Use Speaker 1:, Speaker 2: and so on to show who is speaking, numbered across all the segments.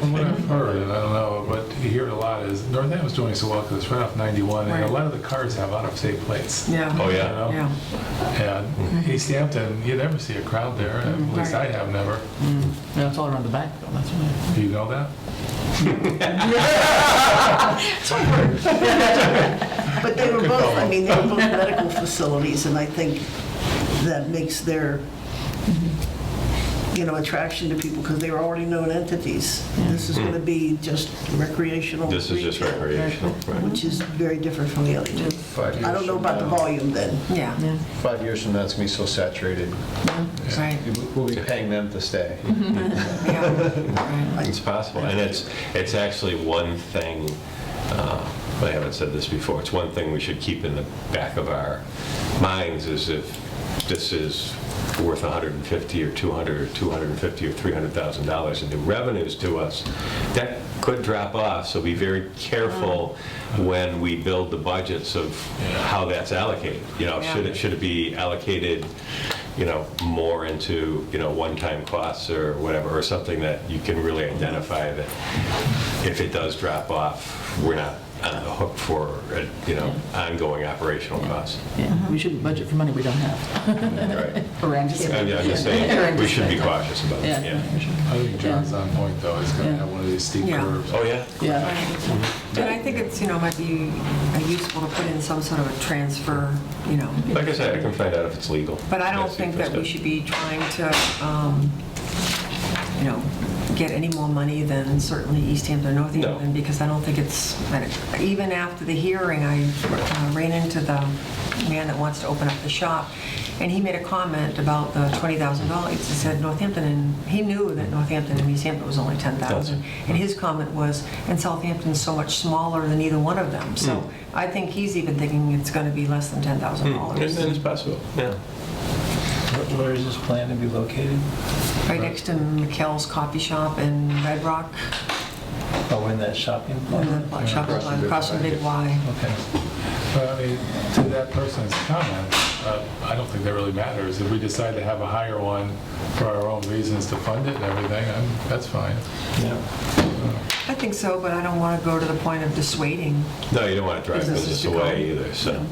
Speaker 1: heard, and I don't know, but you hear it a lot, is Northampton's doing so well because it's right off 91, and a
Speaker 2: Right.
Speaker 1: lot of the cars have out-of-state plates.
Speaker 2: Yeah,
Speaker 3: Oh,
Speaker 1: you
Speaker 3: yeah.
Speaker 1: know?
Speaker 2: yeah. Mm-hmm.
Speaker 1: And East Hampton, you never see a crowd there, at least I
Speaker 2: Right.
Speaker 1: have never.
Speaker 4: Yeah, it's all around the back, though, that's why.
Speaker 1: Do you know that?
Speaker 5: But they were
Speaker 1: Good
Speaker 5: both,
Speaker 1: call.
Speaker 5: I mean, they were both medical facilities, and I think that makes their, you know, attraction to people, because they were already known entities. This is going to be just recreational.
Speaker 3: Hmm. This is just
Speaker 5: retail,
Speaker 3: recreational, right?
Speaker 5: Which is very different from the other two.
Speaker 6: Five years
Speaker 5: I don't know
Speaker 6: from
Speaker 5: about the
Speaker 6: now-
Speaker 5: volume then.
Speaker 2: Yeah,
Speaker 6: Five years from now, it's going to be so saturated.
Speaker 2: right,
Speaker 6: We'll be paying them to stay.
Speaker 2: yeah.
Speaker 3: It's possible, and it's, it's actually one thing, uh, I haven't said this before, it's one thing we should keep in the back of our minds is if this is worth 150 or 200 or 250 or 300,000 dollars in new revenues to us, that could drop off, so be very careful when we build the budgets of how that's allocated. You know, should it, should it be allocated, you know, more into, you know, one-time costs or whatever, or something that you can really identify that if it does drop off, we're not on the hook for, uh, you know, ongoing operational costs.
Speaker 4: Yeah, we shouldn't budget for money we don't have.
Speaker 3: Right.
Speaker 4: Or anticipate.
Speaker 3: I'm I'm just saying, we should be cautious about it, yeah.
Speaker 1: I think John's on point, though, he's going to
Speaker 4: Yeah.
Speaker 1: have one of these steep
Speaker 2: Yeah.
Speaker 1: curves.
Speaker 3: Oh, yeah?
Speaker 4: Yeah,
Speaker 2: And I think it's, you know, might be uh, useful to put in some sort of a transfer, you know.
Speaker 3: Like I said, I can find out if it's legal.
Speaker 2: But I don't
Speaker 3: That's the
Speaker 2: think that we
Speaker 3: first step.
Speaker 2: should be trying to, um, you know, get any more money than certainly East Hampton or North
Speaker 3: No.
Speaker 2: Hampton, because I don't think it's, even after the hearing, I uh, ran into the man that wants to open up the shop, and he made a comment about the $20,000. He said Northampton, and he knew that Northampton and East Hampton was only 10,000.
Speaker 3: Thousand.
Speaker 2: And his comment was, and Southampton's so much smaller than either one of them. So I think he's even thinking it's going to be less than
Speaker 3: Hmm, And
Speaker 2: $10,000.
Speaker 3: and it's possible, yeah.
Speaker 7: Where is this plan to be located?
Speaker 2: Right next to McKell's Coffee Shop in Red Rock,
Speaker 7: Oh, in that shopping
Speaker 2: on
Speaker 7: plaza?
Speaker 2: the shop
Speaker 6: across from Big
Speaker 2: across from Big Y.
Speaker 7: Okay.
Speaker 1: But I mean, to that person's comment, uh, I don't think that really matters. If we decide to have a higher one for our own reasons to fund it and everything, I'm- that's fine.
Speaker 7: Yeah.
Speaker 2: I think so, but I don't want to go to the point of dissuading.
Speaker 3: No, you don't want to drive
Speaker 2: Businesses
Speaker 3: business
Speaker 2: to go.
Speaker 3: away either, so.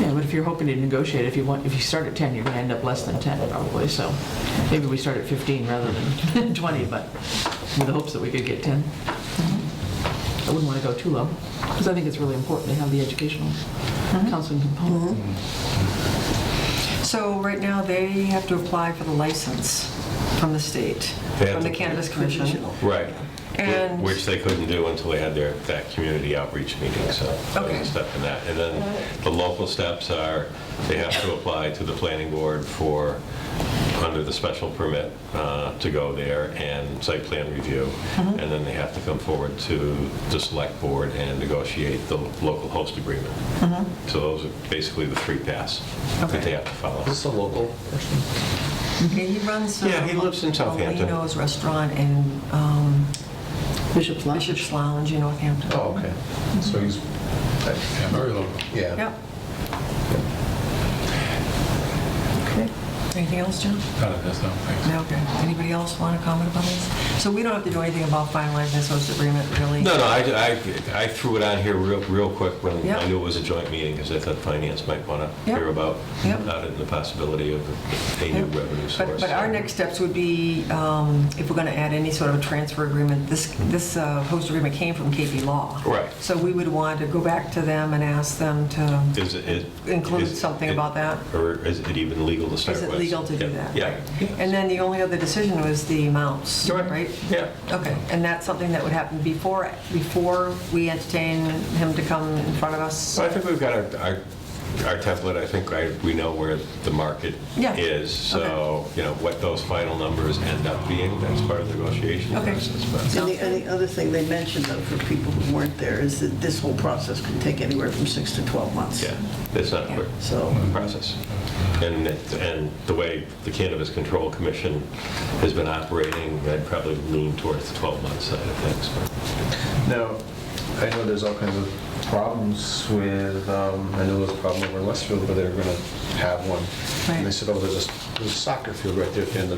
Speaker 4: yeah, but if you're hoping to negotiate, if you want, if you start at 10, you're gonna end up less than 10 probably, so maybe we start at 15 rather than 20, but with the hopes that we could get 10. I wouldn't want to go too low, because I think it's really important to have the educational counseling component.
Speaker 2: So right now, they have to apply for the license from the state,
Speaker 3: They have
Speaker 2: from the
Speaker 3: to-
Speaker 2: Cannabis Commission.
Speaker 5: Provisional.
Speaker 3: Right.
Speaker 2: And-
Speaker 3: Which they couldn't do until they had their, that community outreach meeting, so that was a
Speaker 2: Okay.
Speaker 3: step in that. And then the local steps are, they have to apply to the planning board for, under the special permit, uh, to go there and site plan review.
Speaker 2: Mm-hmm.
Speaker 3: And then they have to come forward to the select board and negotiate the local host agreement. So those are basically the three paths
Speaker 2: Mm-hmm. Okay.
Speaker 3: that they have to follow.
Speaker 7: Is this a local person?
Speaker 2: Okay, He runs. uh,
Speaker 3: Yeah, he lives in Southampton.
Speaker 2: Molino's Restaurant in um,
Speaker 4: Bishop's Lodge.
Speaker 2: Bishop's Lounge in Northampton.
Speaker 6: Oh, okay. So he's,
Speaker 1: Yeah, very local.
Speaker 6: yeah.
Speaker 2: Yep. Okay. Anything else, John?
Speaker 1: None of this, no, thanks.
Speaker 2: No, okay. Anybody else want to comment about this? So we don't have to do anything about finalizing this host agreement, really?
Speaker 3: No, no, I, I- I threw it on here real, real quick when I
Speaker 2: Yep.
Speaker 3: knew it was a joint meeting, because I thought finance might want to
Speaker 2: Yep.
Speaker 3: hear about,
Speaker 2: Yep.
Speaker 3: about it and the possibility of a new
Speaker 2: Yep.
Speaker 3: revenue
Speaker 2: But,
Speaker 3: source.
Speaker 2: but our next steps would be, um, if we're going to add any sort of a transfer agreement, this, this uh, host agreement came from KP Law.
Speaker 3: Right.
Speaker 2: So we would want to go back to them and ask them to
Speaker 3: Is it- is-
Speaker 2: include
Speaker 3: is
Speaker 2: something
Speaker 3: it-
Speaker 2: about that.
Speaker 3: Or is it even legal to start
Speaker 2: Is
Speaker 3: with?
Speaker 2: it legal to do that?
Speaker 3: Yeah.
Speaker 2: And then the only other decision was the amounts,
Speaker 3: Correct.
Speaker 2: right?
Speaker 3: Yeah.
Speaker 2: Okay, and that's something that would happen before, before we entertain him to come in front of us?
Speaker 3: So I think we've got our, our our template, I think I- we know where the market
Speaker 2: Yeah.
Speaker 3: is, so, you know, what those final numbers end up being, that's part of the negotiation
Speaker 2: Okay.
Speaker 3: process. but-
Speaker 5: And the, and the other thing they mentioned, though, for people who weren't there, is that this whole process can take anywhere from six to 12 months.
Speaker 3: Yeah, it's not a quick
Speaker 5: So-
Speaker 3: process. And, it- and the way the Cannabis Control Commission has been operating, I'd probably lean towards the 12-month side of things. but-
Speaker 6: Now, I know there's all kinds of problems with, um, I know there was a problem over in Westfield where they were going to have one. And they
Speaker 2: Right.
Speaker 6: said, oh, there's a, there's a soccer field right there at the end of